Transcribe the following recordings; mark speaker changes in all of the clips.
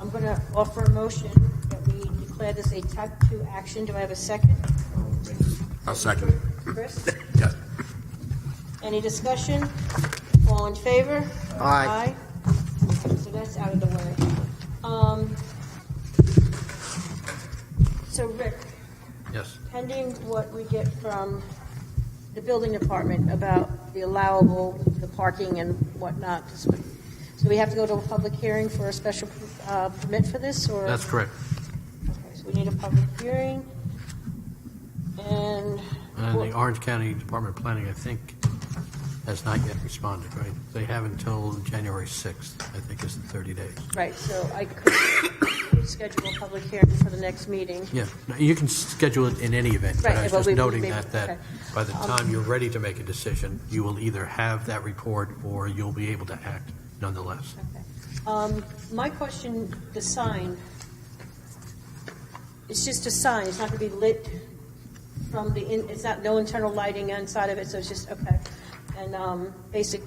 Speaker 1: I'm going to offer a motion that we declare this a type 2 action. Do I have a second?
Speaker 2: I'll second.
Speaker 1: Chris?
Speaker 2: Yes.
Speaker 1: Any discussion? All in favor? Aye.
Speaker 2: Aye.
Speaker 1: So that's out of the way. Um, So Rick,
Speaker 2: Yes.
Speaker 1: pending what we get from the building department about the allowable, the parking and whatnot, 'cause we- so we have to go to a public hearing for a special uh, permit for this, or?
Speaker 2: That's correct.
Speaker 1: Okay, So we need a public hearing, and.
Speaker 2: And the Orange County Department of Planning, I think, has not yet responded, right? They have until January 6th, I think is the 30 days.
Speaker 1: Right, so I could schedule a public hearing for the next meeting.
Speaker 2: Yeah, No, you can schedule it in any event, but
Speaker 1: Right,
Speaker 2: I was
Speaker 1: but
Speaker 2: just
Speaker 1: we- we-
Speaker 2: noting
Speaker 1: we-
Speaker 2: that, that
Speaker 1: okay. Um,
Speaker 2: by the time you're ready to make a decision, you will either have that report or you'll be able to act nonetheless.
Speaker 1: Okay. Um, My question, the sign, it's just a sign, it's not going to be lit from the, in. it's not, no internal lighting inside of it, so it's just, okay. And um, basic,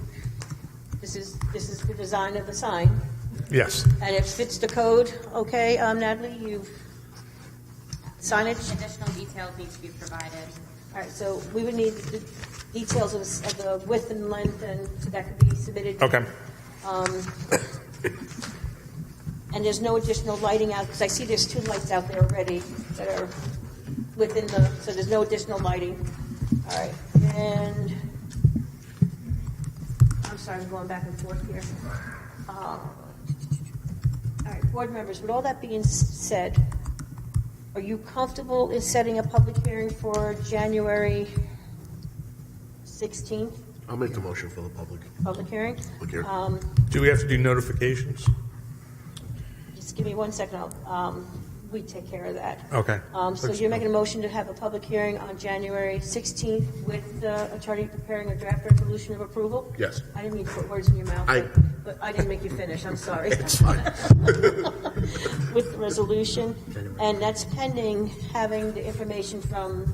Speaker 1: this is, this is the design of the sign,
Speaker 3: Yes.
Speaker 1: and it fits the code, okay, um, Natalie, you, signage?
Speaker 4: Additional details need to be provided.
Speaker 1: All right, so we would need the details of the- of the width and length, and that could be submitted.
Speaker 3: Okay.
Speaker 1: Um, And there's no additional lighting out, because I see there's two lights out there already that are within the, so there's no additional lighting. All right, and, I'm sorry, I'm going back and forth here. Uh, All right, board members, with all that being s- said, are you comfortable in setting a public hearing for January 16th,
Speaker 5: I'll make the motion for the public.
Speaker 1: public hearing?
Speaker 5: Public hearing.
Speaker 1: Um,
Speaker 3: Do we have to do notifications?
Speaker 1: Just give me one second, I'll, um, we take care of that.
Speaker 3: Okay.
Speaker 1: Um, so you're making a motion to have a public hearing on January sixteenth with the attorney preparing a draft resolution of approval?
Speaker 5: Yes.
Speaker 1: I didn't mean to put words in your mouth.
Speaker 5: I-
Speaker 1: But I didn't make you finish, I'm sorry.
Speaker 5: It's fine.
Speaker 1: With the resolution, and that's pending having the information from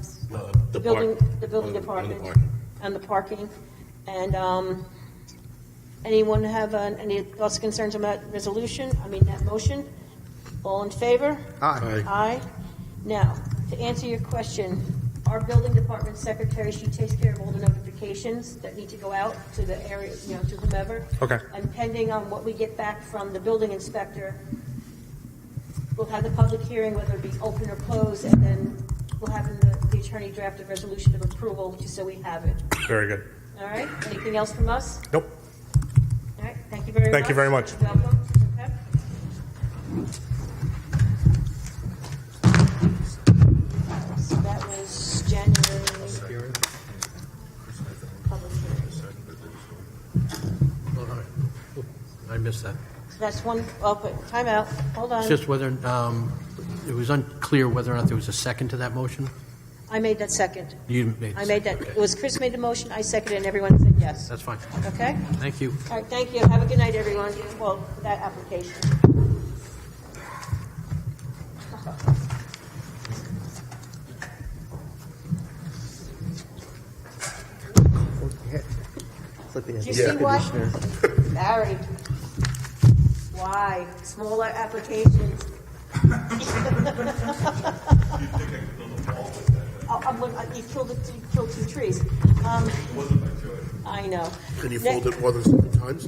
Speaker 1: the building, the building department on the parking. And, um, anyone have uh, any thoughts, concerns about resolution, I mean, that motion? All in favor?
Speaker 5: Aye.
Speaker 1: Aye. Now, to answer your question, our building department secretary, she takes care of all the notifications that need to go out to the area, you know, to whomever.
Speaker 3: Okay.
Speaker 1: And pending on what we get back from the building inspector, we'll have the public hearing, whether it be open or closed, and then we'll have the- the attorney draft a resolution of approval, just so we have it.
Speaker 3: Very good.
Speaker 1: All right? Anything else from us?
Speaker 3: Nope.
Speaker 1: All right, thank you very much.
Speaker 3: Thank you very much.
Speaker 1: You're welcome. Okay. So that was January. Public hearing.
Speaker 2: All right. I missed that.
Speaker 1: So That's one, oh, but timeout, hold
Speaker 2: It's
Speaker 1: on.
Speaker 2: just whether, um, it was unclear whether or not there was a second to that motion.
Speaker 1: I made that second.
Speaker 2: You made. the
Speaker 1: I made that,
Speaker 2: second.
Speaker 1: it
Speaker 2: Okay.
Speaker 1: was Chris made the motion, I seconded, and everyone said yes.
Speaker 2: That's fine.
Speaker 1: Okay?
Speaker 2: Thank you.
Speaker 1: All right, thank you. Have a good night, everyone. Well, for that application. Do you see what? Barry, why? Smaller applications. Oh, I'm, look- you killed, it- you killed two trees. Um, I know.
Speaker 5: Can you
Speaker 1: Ne-
Speaker 5: fold it more than seven times?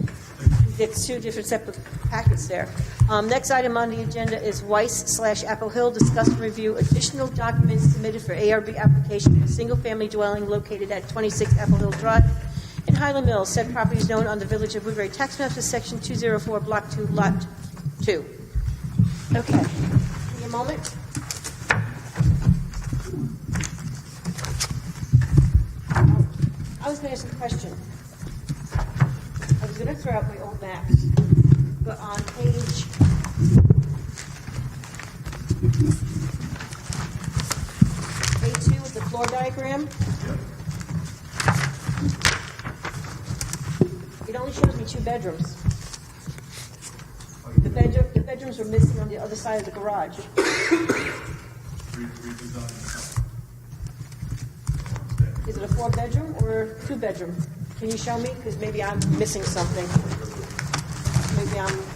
Speaker 1: it's two different separate packets there. Um, Next item on the agenda is Weiss slash Apple Hill, discuss and review additional documents submitted for ARB application for single-family dwelling located at 26 Apple Hill Drive in Highland Mills. Said property is known on the Village of Woodbury Tax Map as Section 204, Block 2, Lot 2. Okay. Give me a moment. I was going to ask a question. I was gonna throw out my old maps, but on page. A two is the floor diagram. It only shows me two bedrooms. The bedroom, the bedrooms were missing on the other side of the garage. Is it a four-bedroom or two-bedroom? Can you show me? Because maybe I'm missing something. Maybe I'm